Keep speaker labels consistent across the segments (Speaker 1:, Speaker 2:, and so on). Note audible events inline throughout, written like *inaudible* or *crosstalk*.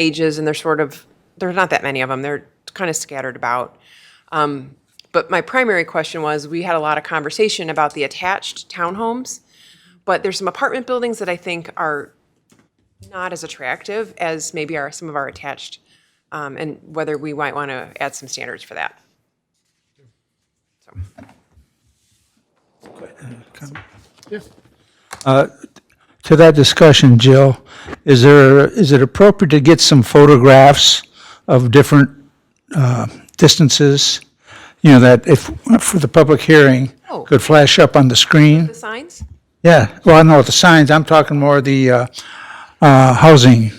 Speaker 1: ages, and they're sort of, there's not that many of them. They're kind of scattered about. Um, But my primary question was, we had a lot of conversation about the attached townhomes, but there's some apartment buildings that I think are not as attractive as maybe are some of our attached, um, and whether we might want to add some standards for that.
Speaker 2: Uh, To that discussion, Jill, is there, is it appropriate to get some photographs of different uh, distances? You know, that if, for the public hearing,
Speaker 1: Oh.
Speaker 2: could flash up on the screen?
Speaker 1: The signs?
Speaker 2: Yeah, well, I know the signs, I'm talking more the uh, uh, housing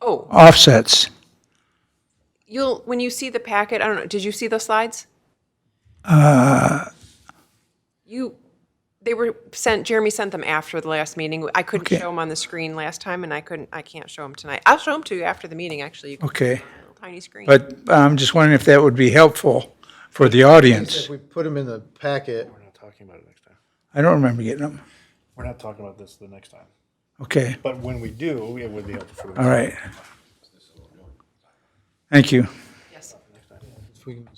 Speaker 1: Oh,
Speaker 2: offsets.
Speaker 1: you'll, when you see the packet, I don't know, did you see the slides?
Speaker 2: Uh.
Speaker 1: You, they were sent, Jeremy sent them after the last meeting. I couldn't show them on the screen last time, and I couldn't, I can't show them tonight. I'll show them to you after the meeting, actually. You can
Speaker 2: Okay.
Speaker 1: see them on a little Tiny screen.
Speaker 2: But I'm just wondering if that would be helpful for the audience.
Speaker 3: If we put them in the packet,
Speaker 4: We're not talking about it next time.
Speaker 2: I don't remember getting them.
Speaker 4: We're not talking about this the next time.
Speaker 2: Okay,
Speaker 4: But when we do, it would be helpful.
Speaker 2: all right. Thank you.
Speaker 1: Yes.
Speaker 3: if we can.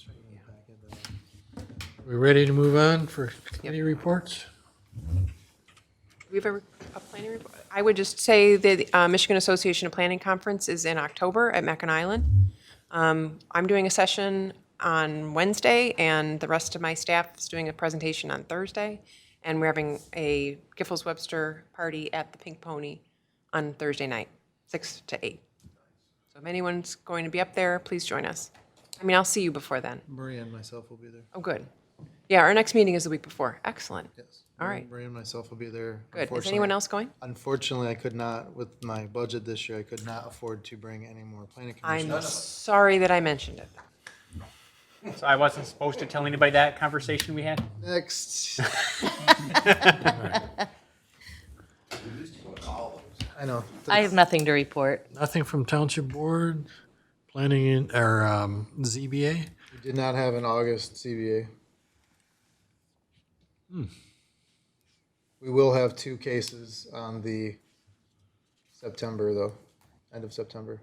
Speaker 3: We ready to move on for committee reports?
Speaker 1: We have a, a planning report. I would just say that the uh, Michigan Association of Planning Conference is in October at Mackin Island. Um, I'm doing a session on Wednesday, and the rest of my staff is doing a presentation on Thursday. And we're having a Giffords Webster party at the Pink Pony on Thursday night, six to eight. So if anyone's going to be up there, please join us. I mean, I'll see you before then.
Speaker 3: Maria and myself will be there.
Speaker 1: Oh, good. Yeah, our next meeting is the week before. Excellent.
Speaker 3: Yes.
Speaker 1: All right.
Speaker 3: Maria and myself will be there.
Speaker 1: Good. Is
Speaker 3: Unfortunately-
Speaker 1: anyone else going?
Speaker 3: Unfortunately, I could not, with my budget this year, I could not afford to bring any more planning
Speaker 1: I'm
Speaker 3: commissioners.
Speaker 1: sorry that I mentioned it.
Speaker 5: So I wasn't supposed to tell anybody that conversation we had?
Speaker 1: *laughs*
Speaker 3: Next. *laughs* I know.
Speaker 6: I have nothing to report.
Speaker 7: Nothing from Township Board, Planning and- or um, ZBA.
Speaker 3: We Did not have an August CBA.
Speaker 7: Hmm.
Speaker 3: We will have two cases on the September, though, end of September.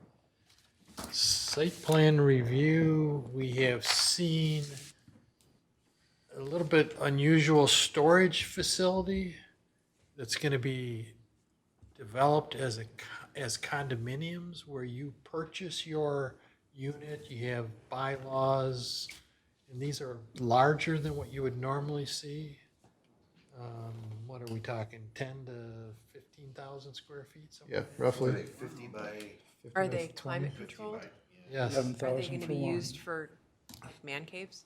Speaker 7: Site plan review, we have seen a little bit unusual storage facility that's going to be developed as a, co- as condominiums where you purchase your unit, you have bylaws, and these are larger than what you would normally see. Um, What are we talking, 10 to 15,000 square feet? something?
Speaker 3: Yeah, roughly.
Speaker 1: Are they climate controlled?
Speaker 7: Yes.
Speaker 1: Are they going to be used for man caves?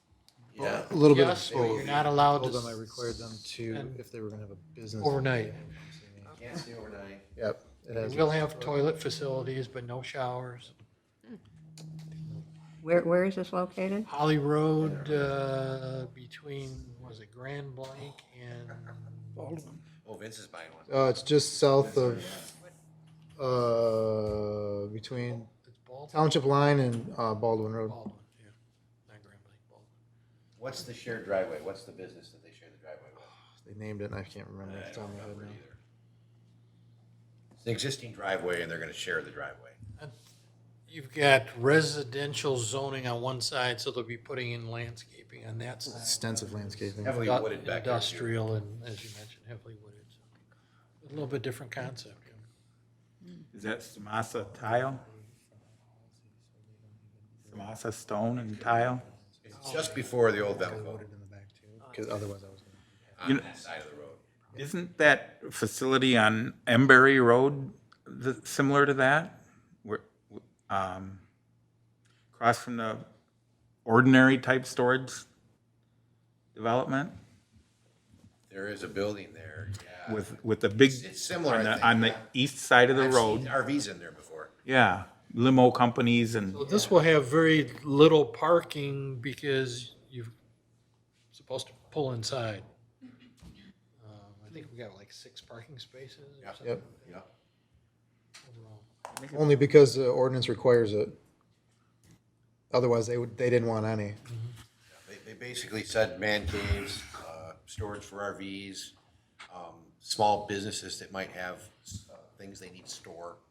Speaker 3: A little bit of
Speaker 7: Yes, but
Speaker 3: both.
Speaker 7: you're not allowed
Speaker 3: Told them I
Speaker 7: to
Speaker 3: required them to,
Speaker 7: spend
Speaker 3: if they were gonna have a business.
Speaker 7: overnight.
Speaker 3: Yep, it has.
Speaker 7: We'll have toilet facilities, but no showers.
Speaker 8: Where, where is this located?
Speaker 7: Holly Road, uh, between, was it Grand Blanc and
Speaker 9: Oh, Vince is buying one.
Speaker 3: Uh, it's just south of, uh, between
Speaker 7: it's Baldwin?
Speaker 3: Township Line and uh, Baldwin Road.
Speaker 7: Baldwin, yeah. Not Grand Blanc, Baldwin.
Speaker 9: What's the shared driveway? What's the business that they share the driveway with?
Speaker 3: They named it and I can't remember. off the top of my head now.
Speaker 9: It's an existing driveway and they're gonna share the driveway.
Speaker 7: You've got residential zoning on one side, so they'll be putting in landscaping on that side.
Speaker 3: Extensive landscaping.
Speaker 9: Heavily wooded back there. too.
Speaker 7: Industrial and, as you mentioned, heavily wooded. so A little bit different concept.
Speaker 10: Is that Samasa tile? Samasa stone and tile?
Speaker 9: It's just before the old Velco,
Speaker 3: Voted in the back too, 'cause otherwise I was gonna.
Speaker 9: on that side of the road.
Speaker 10: Isn't that facility on Embury Road the, similar to that? Where, um, across from the ordinary type storage development
Speaker 9: There is a building there, yeah.
Speaker 10: with, with the big,
Speaker 9: It's similar,
Speaker 10: on
Speaker 9: I
Speaker 10: the,
Speaker 9: think.
Speaker 10: on the east side of the
Speaker 9: I've
Speaker 10: road,
Speaker 9: seen RVs in there before.
Speaker 10: yeah, limo companies and,
Speaker 7: Well, this will have very little parking because you're supposed to pull inside. Um, I think we got like six parking spaces or something.
Speaker 3: Yep,
Speaker 9: Yeah.
Speaker 3: only because the ordinance requires it. Otherwise, they would, they didn't want any.
Speaker 9: They, they basically said man caves, uh, storage for RVs, um, small businesses that might have, uh, things they need to store.